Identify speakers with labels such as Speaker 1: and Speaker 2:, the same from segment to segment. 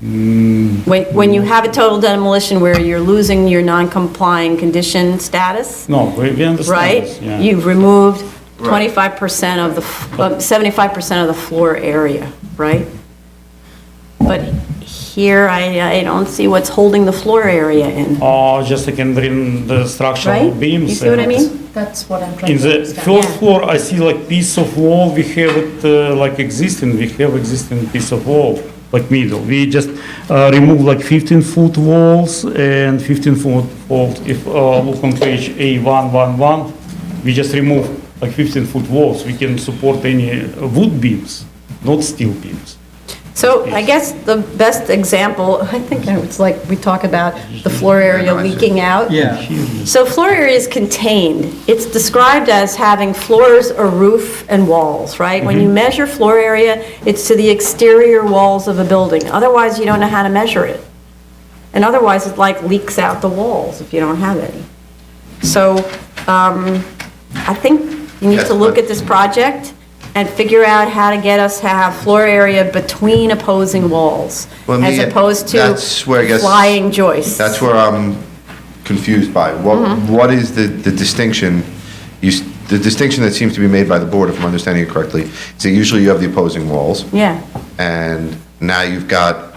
Speaker 1: When, when you have a total demolition where you're losing your non-complying condition status,
Speaker 2: No, we we understand
Speaker 1: right?
Speaker 2: this, yeah.
Speaker 1: You've removed 25% of the, f- uh, 75% of the floor area, right? But here, I, I don't see what's holding the floor area in,
Speaker 2: Or Oh, just I can drain the structural
Speaker 1: right?
Speaker 2: beams.
Speaker 1: You see what I
Speaker 2: and-
Speaker 1: mean?
Speaker 3: That's what I'm trying
Speaker 2: In
Speaker 3: to
Speaker 2: the
Speaker 3: understand.
Speaker 2: first
Speaker 1: Yeah.
Speaker 2: floor, I see like piece of wall, we have it uh, like existing, we have existing piece of wall, like middle. We just uh, remove like 15-foot walls and 15-foot walls. If uh, look on page A111, we just remove like 15-foot walls. We can support any uh, wood beams, not steel beams.
Speaker 1: So I guess the best example, I think it's like, we talk about the floor area
Speaker 4: I see.
Speaker 1: leaking out.
Speaker 5: Yeah,
Speaker 1: So floor area is contained. It's described as having floors or roof and walls, right? When
Speaker 4: Mm-hmm.
Speaker 1: you measure floor area, it's to the exterior walls of a building. Otherwise, you don't know how to measure it. And otherwise, it like leaks out the walls if you don't have any. So um, I think you need
Speaker 4: Yes,
Speaker 1: to look
Speaker 4: but-
Speaker 1: at this project and figure out how to get us to have floor area between opposing walls
Speaker 4: Well,
Speaker 1: as
Speaker 4: me-
Speaker 1: opposed to
Speaker 4: that's where I guess-
Speaker 1: flying joists.
Speaker 4: That's where I'm confused by. What,
Speaker 1: Mm-hmm.
Speaker 4: what is the, the distinction? You, s- the distinction that seems to be made by the board, if I'm understanding it correctly, is that usually you have the opposing walls,
Speaker 1: Yeah,
Speaker 4: and now you've got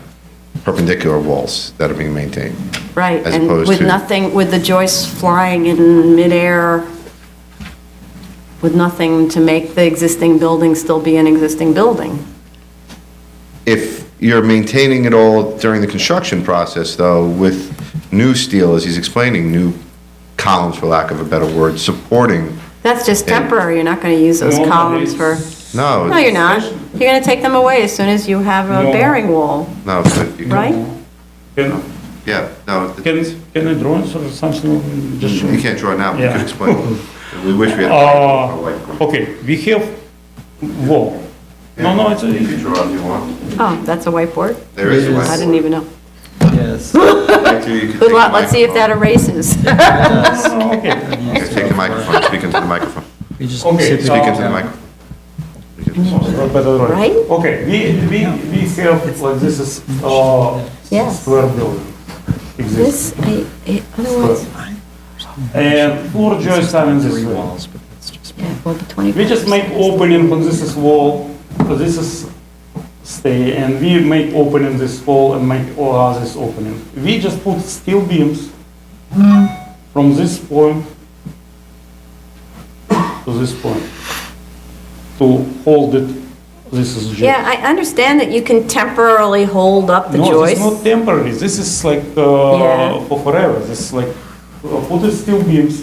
Speaker 4: perpendicular walls that are being maintained.
Speaker 1: right.
Speaker 4: As
Speaker 1: And
Speaker 4: opposed
Speaker 1: with
Speaker 4: to-
Speaker 1: nothing, with the joists flying in midair, with nothing to make the existing building still be an existing building.
Speaker 4: If you're maintaining it all during the construction process, though, with new steel, as he's explaining, new columns, for lack of a better word, supporting,
Speaker 1: That's just
Speaker 4: Yeah.
Speaker 1: temporary. You're not going to use those
Speaker 2: No, but
Speaker 1: columns for,
Speaker 4: no.
Speaker 1: no, you're not. You're going to take them away as soon as you have a
Speaker 2: No.
Speaker 1: bearing wall,
Speaker 4: No, but you-
Speaker 1: right?
Speaker 2: Can,
Speaker 4: Yeah, no, th-
Speaker 2: can, can I draw or something? Just
Speaker 4: you can't draw it now, but you
Speaker 2: Yeah.
Speaker 4: can explain. We wish we had. a
Speaker 2: Uh,
Speaker 4: whiteboard.
Speaker 2: okay, we have wall. No, no, it's,
Speaker 4: You can
Speaker 2: a-
Speaker 4: draw if you want.
Speaker 1: Oh, that's a whiteboard?
Speaker 4: There is a
Speaker 5: Yes.
Speaker 1: I didn't even know.
Speaker 5: yes.
Speaker 1: Good luck. Let's see if that erases.
Speaker 2: oh, okay.
Speaker 4: Take the microphone, speak into the microphone.
Speaker 2: Uh,
Speaker 5: We just
Speaker 2: Okay,
Speaker 5: sit
Speaker 2: so-
Speaker 4: Speak
Speaker 5: with-
Speaker 4: into the microphone.
Speaker 2: Better drawing.
Speaker 1: Right?
Speaker 2: Okay, we, we, we have, like, this is, uh,
Speaker 1: Yes.
Speaker 2: square building. Exists.
Speaker 1: This, I, I- otherwise,
Speaker 2: And four joists are in this
Speaker 5: Three
Speaker 2: wall.
Speaker 5: walls, but that's just.
Speaker 1: yeah, well, the 25.
Speaker 2: We just make opening on this is wall, so this is stay, and we make opening this wall and make all others opening. We just put steel beams from this point to this point to hold it, this is joist.
Speaker 1: Yeah, I understand that you can temporarily hold up the
Speaker 2: No,
Speaker 1: joists.
Speaker 2: it's not temporary, this is like,
Speaker 1: Yeah.
Speaker 2: uh, for forever, this is like, uh, put the steel beams,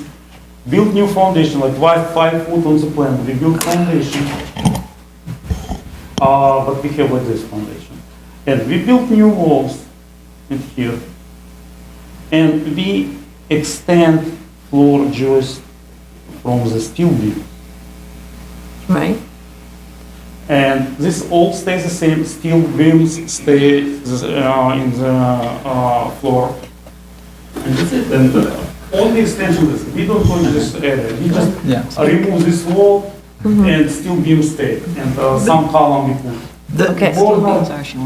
Speaker 2: build new foundation, like five, five foot on the plan, we build foundation. Uh, but we have like this foundation. And we build new walls in here. And we extend floor joist from the steel beam.
Speaker 1: Right.
Speaker 2: And this all stays the same, steel beams stay this, uh, in the uh, floor. And that's it. And uh, only extension is, we don't change this area, we just
Speaker 5: Yeah.
Speaker 2: uh, remove this wall and steel beams stay. And uh, some column we put.
Speaker 5: The-
Speaker 1: Okay.
Speaker 2: Board-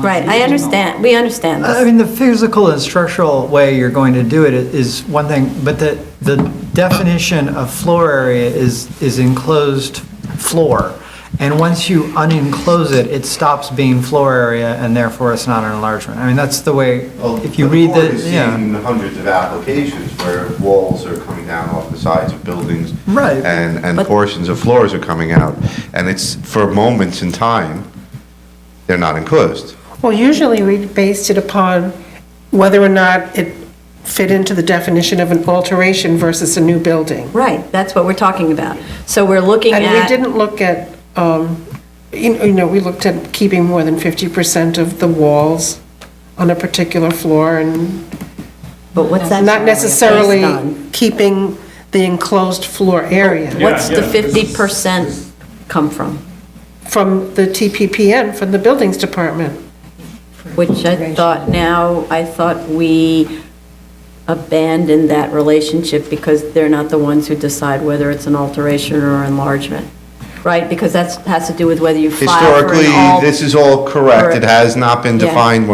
Speaker 1: Right, I understand, we understand
Speaker 5: I
Speaker 3: Uh,
Speaker 1: this.
Speaker 5: mean, the physical and structural way you're going to do it i- is one thing, but the, the definition of floor area is, is enclosed floor. And once you unenclose it, it stops being floor area and therefore it's not an enlargement. I mean, that's the way, if you read
Speaker 4: the board
Speaker 5: the,
Speaker 4: has
Speaker 5: yeah.
Speaker 4: seen hundreds of applications where walls are coming down off the sides of buildings.
Speaker 5: Right.
Speaker 4: And, and
Speaker 1: But-
Speaker 4: portions of floors are coming out. And it's for moments in time, they're not enclosed.
Speaker 3: Well, usually we based it upon whether or not it fit into the definition of an alteration versus a new building.
Speaker 1: Right, that's what we're talking about. So we're looking
Speaker 3: And we
Speaker 1: at,
Speaker 3: didn't look at, um, you you know, we looked at keeping more than 50% of the walls on a particular floor and
Speaker 1: but what's that?
Speaker 3: not necessarily
Speaker 1: based on?
Speaker 3: keeping the enclosed floor area
Speaker 1: What's
Speaker 2: Yeah,
Speaker 1: the
Speaker 2: yeah, this is-
Speaker 1: 50% come from?
Speaker 3: from the TPPN, from the Buildings Department.
Speaker 1: Which I thought now, I thought we abandoned that relationship because they're not the ones who decide whether it's an alteration or enlargement, right? Because that's, has to do with whether you file for an
Speaker 4: Historically,
Speaker 1: alt-
Speaker 4: this is all correct. It
Speaker 1: Correct.
Speaker 4: has not been
Speaker 1: Yeah.
Speaker 4: defined